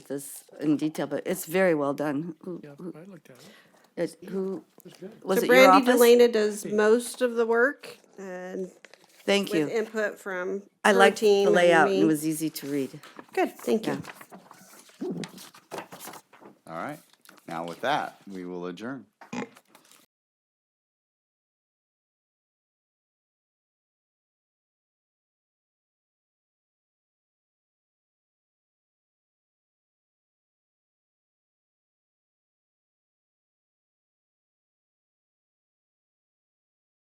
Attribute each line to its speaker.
Speaker 1: this in detail, but it's very well done. Who-
Speaker 2: Yeah, I looked at it.
Speaker 1: it- Who, was
Speaker 3: So
Speaker 1: it your
Speaker 3: Brandy
Speaker 1: office? Mm.
Speaker 3: Delana does most of the work and
Speaker 1: Thank
Speaker 3: with
Speaker 1: you.
Speaker 3: input from
Speaker 1: I
Speaker 3: her
Speaker 1: liked the
Speaker 3: team and
Speaker 1: layout and
Speaker 3: me.
Speaker 1: it was easy to read.
Speaker 3: Good, thank you.
Speaker 4: All right. Now with that, we will adjourn.